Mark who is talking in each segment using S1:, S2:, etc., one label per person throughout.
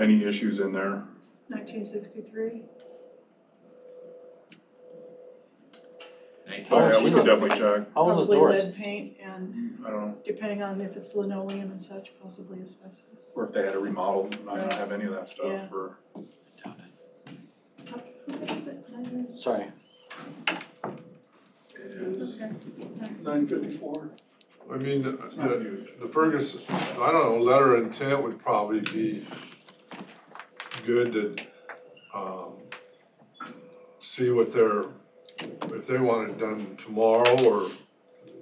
S1: any issues in there.
S2: Nineteen sixty-three.
S1: Oh, yeah, we could definitely check.
S3: How old was
S2: Probably
S3: Doris?
S2: lead paint and
S1: I don't know,
S2: depending on if it's linoleum and such, possibly asbestos.
S1: or if they had it remodeled, I don't have any of that
S2: Yeah.
S1: stuff or.
S2: How- how much is it? Nine
S3: Sorry.
S2: hundred? Okay.
S1: Nine fifty-four.
S4: I mean, the,
S1: It's not huge.
S4: the Ferguson, I don't know, letter of intent would probably be good to, um, see what they're, if they want it done tomorrow or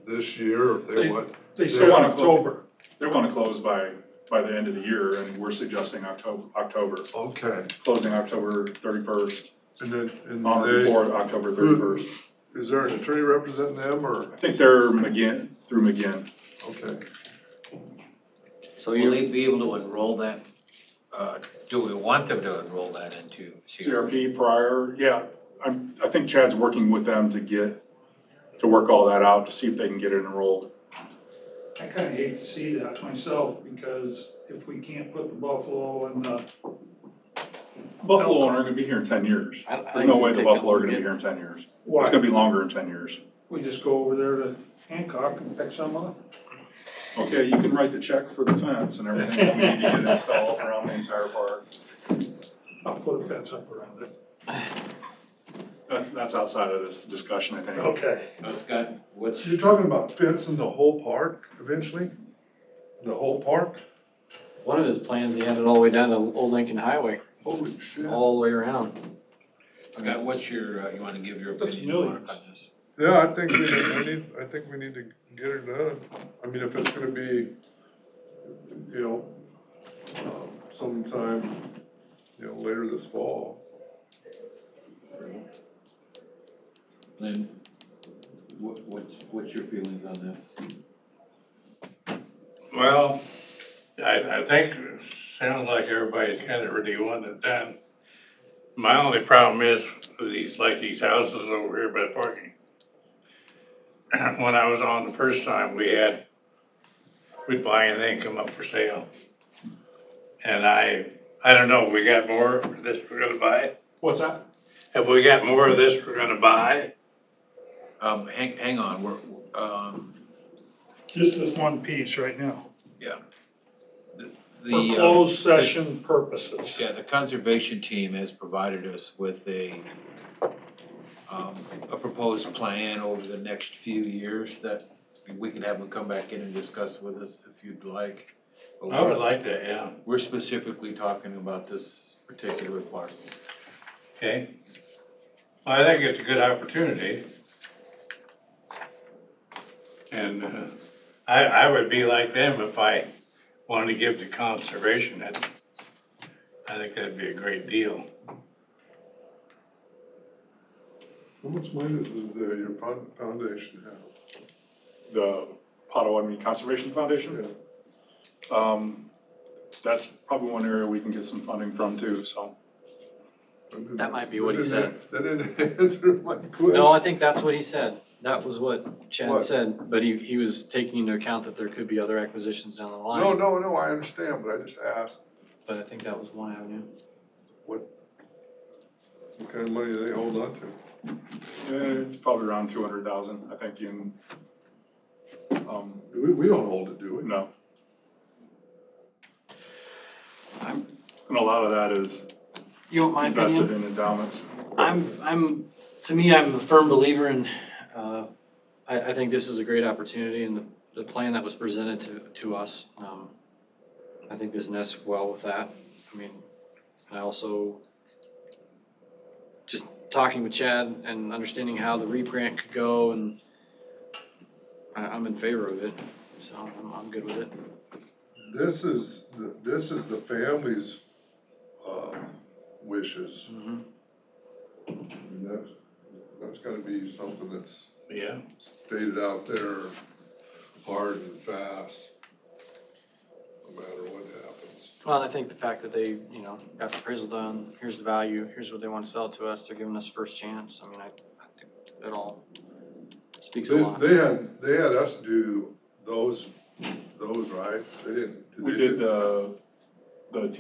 S4: this year, or if they
S1: They-
S4: want.
S1: They still want to close, they want to close by, by the end of the year and we're suggesting October, October,
S4: Okay,
S1: closing October thirty-first,
S4: and then, and
S1: on or
S4: they,
S1: before October thirty-first.
S4: is there an attorney representing them, or,
S1: I think they're McGinn, through McGinn.
S4: okay.
S5: So
S6: Will
S5: you,
S6: they be able to enroll that,
S5: uh, do we want them to enroll that into CRP?
S1: CRP prior, yeah, I'm, I think Chad's working with them to get, to work all that out, to see if they can get it enrolled.
S7: I kinda hate to see that myself, because if we can't put the Buffalo and the,
S1: Buffalo aren't gonna be here in ten years.
S3: I- I think
S1: There's no
S3: it's
S1: way
S3: a
S1: the
S3: take-up
S1: Buffalo are gonna be
S3: again.
S1: here in ten years. It's
S7: why,
S1: gonna be longer in ten years.
S7: we just go over there to Hancock and pick some up?
S1: Okay, you can write the check for the fence and everything that we need to get installed around the entire park.
S7: I'll put a fence up around it.
S1: That's, that's outside of this discussion, I think.
S7: Okay.
S6: it's got, what's,
S4: You're talking about fencing the whole park eventually? The whole park?
S3: One of his plans, he had it all the way down to Old Lincoln Highway,
S4: Holy shit.
S3: all the way around.
S6: Scott, what's your, uh, you wanna give your
S7: That's
S6: opinion, Mark, on this?
S4: Yeah, I think we we need, I think we need to get it done. I mean, if it's gonna be, you know, um, sometime, you know, later this fall.
S6: Lynn, what, what's, what's your feelings on this?
S8: Well, I, I think it sounds like everybody's kind of really wanting it done. My only problem is with these, like these houses over here by parking. When I was on the first time, we had, we'd buy anything come up for sale. And I, I don't know, we got more of this we're gonna buy?
S1: What's that?
S8: Have we got more of this we're gonna buy?
S6: Um, hang, hang on, we're, um,
S7: Just this one piece right now,
S6: the.
S7: for
S6: uh,
S7: closed session purposes.
S6: Yeah, the conservation team has provided us with a, um, a proposed plan over the next few years that we can have them come back in and discuss with us if you'd like. But
S8: I would
S6: we're-
S8: like that, yeah,
S6: We're specifically talking about this particular parcel.
S8: okay? I think it's a good opportunity. And uh, I, I would be like them if I wanted to give to conservation. That, I think that'd be a great deal.
S4: How much money does the, your fund- foundation have?
S1: The Potawatomi Conservation Foundation?
S4: Yeah.
S1: Um, that's probably one area we can get some funding from too, so.
S4: I didn't-
S3: That might be what he
S4: that
S3: said.
S4: didn't- That didn't answer my question.
S3: No, I think that's what he said. That was what Chad
S4: What?
S3: said, but he, he was taking into account that there could be other acquisitions down the
S4: No,
S3: line.
S4: no, no, I understand, but I just asked,
S3: But I think that was one avenue.
S4: what kind of money do they hold on to?
S1: uh, It's probably around two hundred thousand, I think in, um,
S4: We, we don't hold it, do we?
S1: no. And a lot of that is
S3: You want my
S1: invested
S3: opinion?
S1: in endowments.
S3: I'm, I'm, to me, I'm a firm believer in, uh, I, I think this is a great opportunity and the, the plan that was presented to, to us. um, I think this nests well with that. I mean, and I also, just talking with Chad and understanding how the REAP grant could go and I, I'm in favor of it, so I'm, I'm good with it.
S4: This is, the- this is the family's, uh, wishes.
S3: Mhm.
S4: I mean, that's, that's gotta be something that's
S8: Yeah,
S4: stated out there hard and fast, no matter what happens.
S3: Well, and I think the fact that they, you know, got the appraisal done, here's the value, here's what they want to sell to us, they're giving us first chance, I mean, I, I think it all speaks a lot.
S4: They, they had, they had us do those, those, right? They didn't.
S1: We did the, the